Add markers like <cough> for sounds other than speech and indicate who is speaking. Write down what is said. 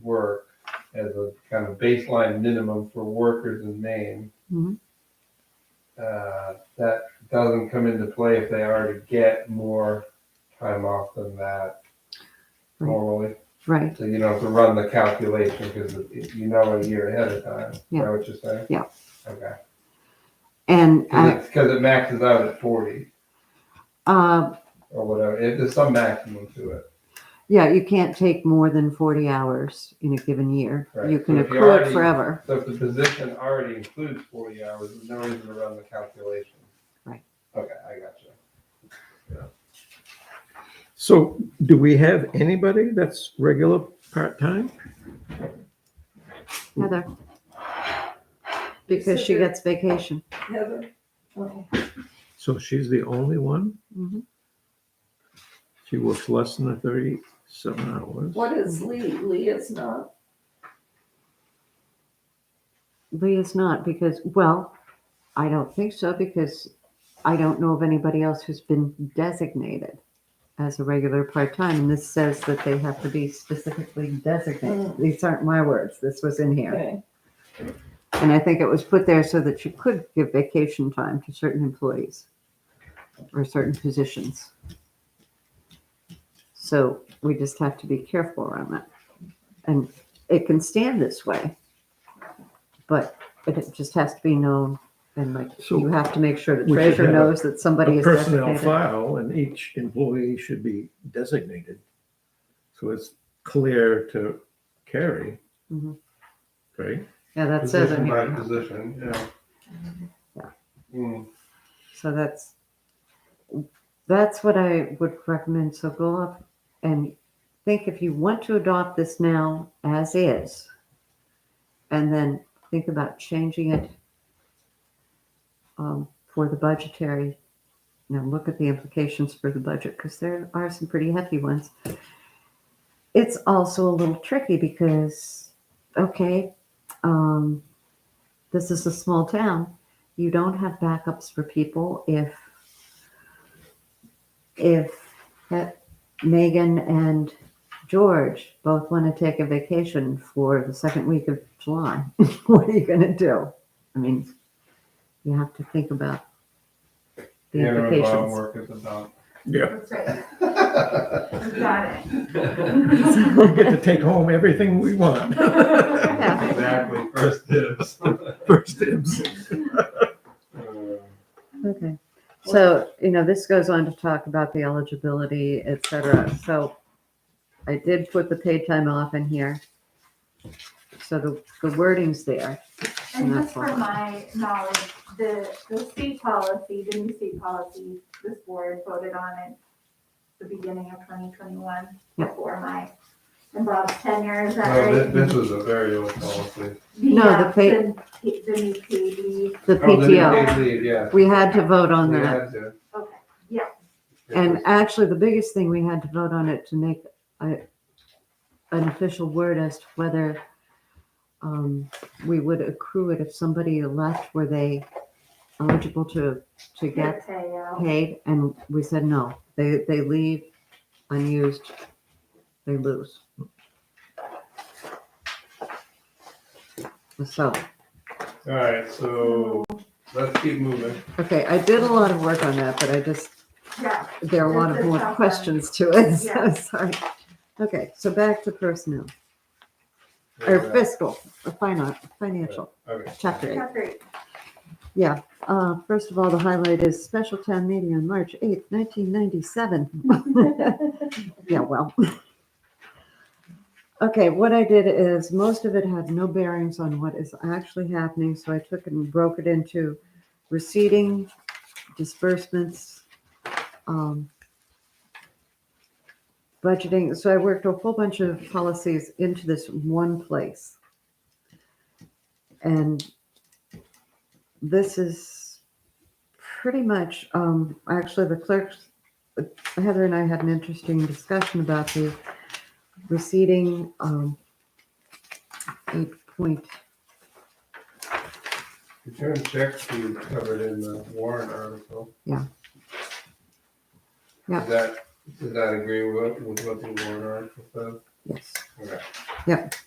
Speaker 1: work as a kind of baseline minimum for workers in Maine.
Speaker 2: Mhm.
Speaker 1: Uh, That doesn't come into play if they already get more time off than that
Speaker 2: Right.
Speaker 1: normally.
Speaker 2: Right.
Speaker 1: So you don't have to run the calculation because you know a year ahead of time. Is
Speaker 2: Yeah.
Speaker 1: that what you're saying?
Speaker 2: Yeah. Uh,
Speaker 1: Okay.
Speaker 2: And I,
Speaker 1: Because it maxes out at 40
Speaker 2: uh,
Speaker 1: or whatever. It- There's some maximum to it.
Speaker 2: yeah, you can't take more than 40 hours in a given year.
Speaker 1: Right.
Speaker 2: You can
Speaker 1: So if you
Speaker 2: accrue it
Speaker 1: already-
Speaker 2: forever.
Speaker 1: So if the position already includes forty hours, there's no reason to run the calculation.
Speaker 2: Right.
Speaker 1: Okay, I got you.
Speaker 3: So do we have anybody that's regular part-time?
Speaker 2: Heather. Because she
Speaker 4: Except
Speaker 2: gets vacation.
Speaker 4: Heather? Okay.
Speaker 3: So she's the only one?
Speaker 2: Mhm.
Speaker 3: She works less than the thirty-seven hours.
Speaker 4: What is Lee? Lee is not.
Speaker 2: Lee is not because, well, I don't think so because I don't know of anybody else who's been designated as a regular part-time. And this says that they have to be specifically designated.
Speaker 4: Mm.
Speaker 2: These aren't my words. This was in here.
Speaker 4: <laughs> Okay.
Speaker 2: And I think it was put there so that you could give vacation time to certain employees or certain positions. So we just have to be careful around that. And it can stand this way, but it just has to be known. And like,
Speaker 3: So
Speaker 2: you have to make sure the
Speaker 3: we should
Speaker 2: treasurer
Speaker 3: have a-
Speaker 2: knows that somebody
Speaker 3: A
Speaker 2: is
Speaker 3: personnel
Speaker 2: designated.
Speaker 3: file and each employee should be designated. So it's clear to carry.
Speaker 2: Mhm.
Speaker 3: Right?
Speaker 2: Yeah, that says it
Speaker 1: Position by
Speaker 2: here.
Speaker 1: position, yeah.
Speaker 2: Yeah.
Speaker 1: Mm,
Speaker 2: So that's, that's what I would recommend. So go up and think if you want to adopt this now as is, and then think about changing it um, for the budgetary. Now look at the implications for the budget because there are some pretty hefty ones. It's also a little tricky because, okay, um, this is a small town you don't have backups for people if if that Megan and George both want to take a vacation for the second week of July. <laughs> what are you going to do? I mean, you have to think about the
Speaker 1: Yeah, we're about
Speaker 2: implications.
Speaker 1: work at the dump.
Speaker 3: Yeah.
Speaker 5: That's right. We've Got it.
Speaker 2: <laughs>
Speaker 3: We get to take home everything we want. <laughs>
Speaker 2: Yeah.
Speaker 1: Exactly, first dibs.
Speaker 3: First dibs.
Speaker 1: Uh,
Speaker 2: Okay. So, you know, this goes on to talk about the eligibility, et cetera. So I did put the paid time off in here. So the, the wording's there.
Speaker 5: And just
Speaker 2: That's
Speaker 5: for
Speaker 2: all.
Speaker 5: my knowledge, the, the state policy, the new state policy, this board voted on it the beginning of twenty twenty-one
Speaker 2: Yep.
Speaker 5: before my, and Bob's tenure, is that
Speaker 1: No,
Speaker 5: right?
Speaker 1: this, this was a very old policy.
Speaker 2: No, the
Speaker 5: uh,
Speaker 2: pay-
Speaker 5: The the new E. PD,
Speaker 2: The
Speaker 1: Oh, the new
Speaker 2: PTO,
Speaker 1: paid leave, yeah.
Speaker 2: we had to vote on
Speaker 1: We
Speaker 2: that.
Speaker 1: had to.
Speaker 5: okay, yeah,
Speaker 1: It
Speaker 2: And
Speaker 1: was-
Speaker 2: actually, the biggest thing, we had to vote on it to make a, an official word as to whether um, we would accrue it if somebody left, were they eligible to, to get
Speaker 5: good pay, uh,
Speaker 2: paid and we said no they they leave unused they lose so
Speaker 1: All right, so let's keep moving.
Speaker 2: okay i did a lot of work on that but i just
Speaker 5: yeah,
Speaker 2: there are a lot of
Speaker 5: This is
Speaker 2: more
Speaker 5: helpful.
Speaker 2: questions to it <laughs> so
Speaker 5: Yeah.
Speaker 2: sorry okay so back to personnel or
Speaker 1: Okay,
Speaker 2: fiscal or finan- financial chapter 8
Speaker 5: that's great.
Speaker 2: Uh, first of all, the highlight is special town meeting on March eighth, nineteen ninety-seven. <laughs> Yeah, well. Okay, what I did is most of it had no bearings on what is actually happening, so I took and broke it into receding disbursements, um, budgeting. So I worked a whole bunch of policies into this one place. And this is pretty much, um, actually the clerk's, Heather and I had an interesting discussion about the receding, um, eight point,
Speaker 1: Return checks we covered in the warrant article.
Speaker 2: Yeah. Yeah.
Speaker 1: Does that, does that agree with, with what the warrant article says?
Speaker 6: Yes.
Speaker 2: Okay.